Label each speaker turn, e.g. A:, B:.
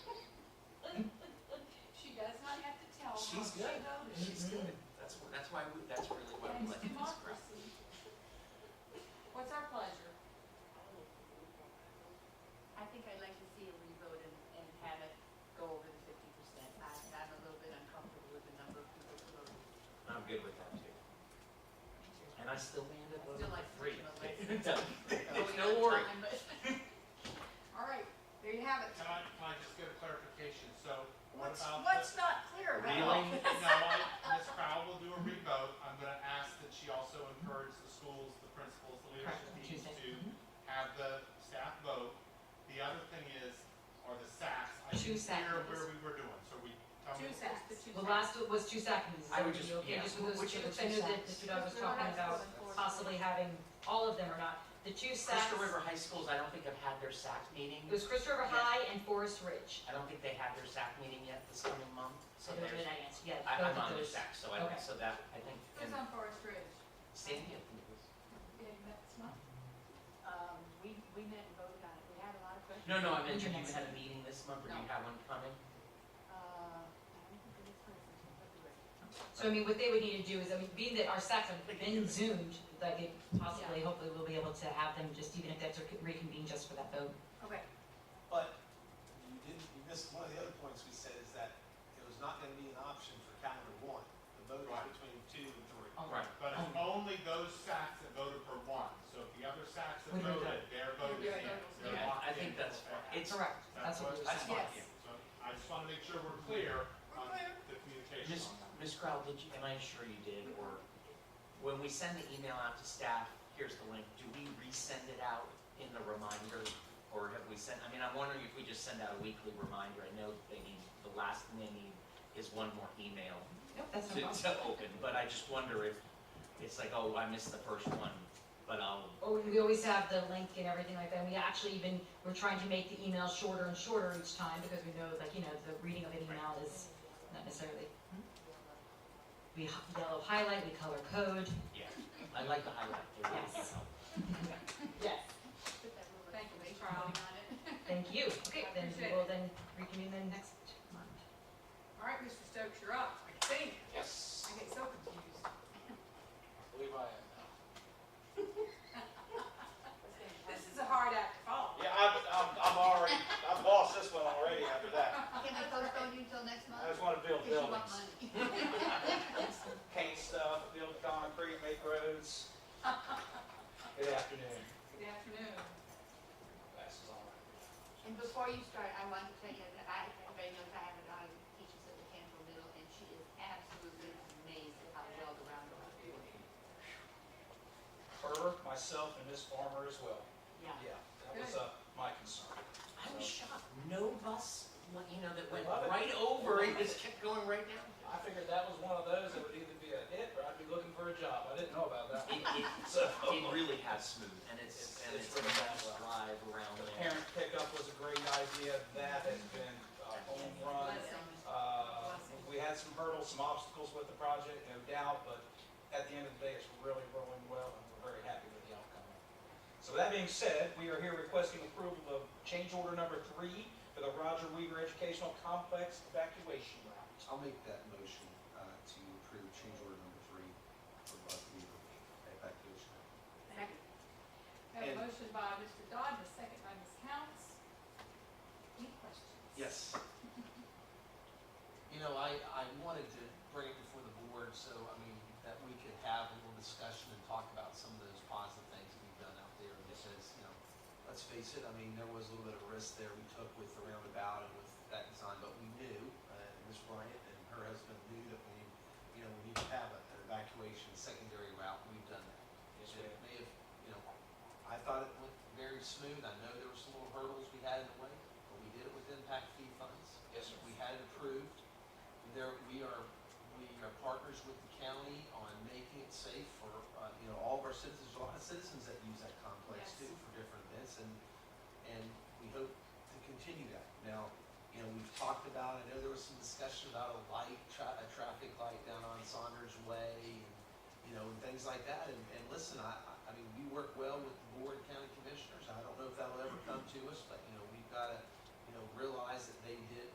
A: She's good, she's good. That's, wh- that's why, we- that's really why we like this crowd.
B: What's our pleasure?
C: I think I'd like to see a revote and, and have it go over the fifty percent. I, I'm a little bit uncomfortable with the number of people who voted.
A: I'm good with that too. And I still landed
C: I
A: voting
C: still like
A: for three.
C: freedom of
A: Don't-
C: voting
A: Oh, No
C: on
A: worry.
C: time, but- All right, there you have it.
D: Can I, can I just get a clarification? So what
C: What's,
D: about
C: what's
D: the?
C: not clear about?
A: Reeling,
D: No, I, Ms. Crowell will do a revote. I'm gonna ask that she also encourage the schools, the principals, the leadership
E: Correct,
D: teams
E: Tuesday. Mm-hmm.
D: to have the staff vote. The other thing is, are the SACs, I
E: Two
D: didn't hear
E: SACs.
D: where we were doing, so we, tell me.
C: Two sacks, the two
E: The
C: sacks.
E: last was two seconds.
A: I would just-
E: Are you okay
A: yeah.
E: just with those
A: Which
E: two?
A: of the
E: I
A: two
E: know that
A: sacks?
E: Mr. Doug was
C: No, we're
E: talking
C: not
E: about
C: going forward.
E: possibly having all of them or not. The two sacks,
A: Crystal River High Schools, I don't think have had their SAC meeting.
E: it was Crystal River
A: Yeah.
E: High and Forest Ridge.
A: I don't think they had their SAC meeting yet this coming month, so
E: I don't know
A: there's,
E: that I answered, yeah.
A: I, I'm
E: both of
A: on their
E: those.
A: SAC, so I, don't-
E: Okay.
A: so that, I think,
B: Who's
A: and
B: on Forest Ridge?
A: Sandy, I think it was.
B: Yeah, that's not.
C: Um, we, we met and voted on it. We had a lot of questions.
A: No, no, I meant, have you had a meeting this month, or do you have one coming?
C: Uh, I don't think it is present, but you're right.
E: So I mean, what they would need to do is, I mean, being that our SACs have been zoomed, that could possibly, hopefully we'll be able to have them just, even if that's reconvened just for that vote.
C: Okay,
F: But you didn't, you missed, one of the other points we said is that it was not gonna be an option for calendar one. The vote
D: Right.
F: is between two and three.
E: All
A: Right.
D: But it's only those SACs that voted for one. So if the other SACs that
E: We don't
D: voted, their vote is
C: Their
D: in.
C: vote is
D: They're
C: in.
A: Yeah,
D: locked
A: I
D: in.
A: think that's,
D: Okay.
A: it's,
E: Correct, that's what we were
A: I
E: saying.
A: spot
C: Yes.
A: you.
D: So I just wanna make sure we're clear on the communication
A: Miss
D: on that.
A: Ms. Crowell, did you, and I'm sure you did, or when we send the email out to staff, here's the link, do we resend it out in the reminder? Or have we sent, I mean, I'm wondering if we just send out a weekly reminder, I know they need, the last thing they need is one more email
E: Nope, that's no
A: to,
E: problem.
A: to open, but I just wonder if, it's like, oh, I missed the first one, but I'll,
E: Or Oh, we always have the link and everything like that, we actually even, we're trying to make the emails shorter and shorter each time, because we know, like, you know, the reading of an email is not necessarily. We h- yellow highlight, we color code,
A: yeah, I like the highlight, they're really
E: Yes.
A: helpful.
E: yes,
C: put that little
B: Thank you, Ms.
C: information
B: Brown.
C: on it.
E: thank you, okay, then
B: Appreciate
E: we
B: it.
E: will then reconvene then next month.
B: All right, Mr. Stokes, you're up, I think.
G: Yes,
B: I get so confused.
G: I believe I am now.
B: This is a hard act to follow.
G: Yeah, I'm, I'm, I'm already, I've lost this one already after that.
C: Can we postpone you until next month?
G: I just want to build
C: Because you want
G: buildings.
C: money.
G: Paint stuff, build concrete, make roads. Good afternoon.
B: Good afternoon.
G: Glasses on right
C: And before you start, I want to tell you that I, everybody knows I have a daughter who teaches at Mechanical Middle, and she is absolutely amazed at how well the roundabout is.
G: now. Her, myself, and Miss Farmer as well.
C: Yeah.
G: Yeah, that was, uh, my concern.
A: I was shocked, no bus, you know, that went
G: Love it.
A: right over, it just kept going right down.
G: I figured that was one of those that would either be a hit or I'd be looking for a job. I didn't know about that.
A: It, it,
G: So,
A: it really has smooth, and it's, and it's a nice drive around
G: the
A: there.
G: parent pickup was a great idea. That has been a home run.
B: Blessing.
G: Uh, We had some hurdles, some obstacles with the project, no doubt, but at the end of the day, it's really rolling well, and we're very happy with the outcome. So with that being said, we are here requesting approval of change order number three for the Roger Weaver Educational Complex evacuation route.
H: I'll make that motion uh, to approve change order number three for Bud Weaver evacuation.
B: Second. Have a
H: And-
B: motion by Mr. Dodd, and a second by Ms. Counts. Any questions?
H: Yes. You know, I, I wanted to bring it before the board, so, I mean, that we could have a little discussion and talk about some of those positive things we've done out there, because, you know, let's face it, I mean, there was a little bit of risk there we took with the roundabout and with that design, but we knew, uh, Ms. Bryant and her husband knew that we, you know, we need to have an evacuation secondary route, and we've done that. It
G: Yes, ma'am.
H: may have, you know, I thought it went very smooth. I know there were some little hurdles we had in the way, but we did it with impact fee funds.
G: Yes, sir.
H: We had it approved. There, we are, we are partners with the county on making it safe for, uh, you know, all of our citizens, There's a lot of citizens that use that complex too
B: Yes.
H: for different events and, and we hope to continue that. Now, you know, we've talked about, I know there was some discussion about a light, tra- a traffic light down on Saunders Way and you know, and things like that. And, and listen, I, I- I mean, we work well with the board and county commissioners. I don't know if that'll ever come to us, but, you know, we've got to, you know, realize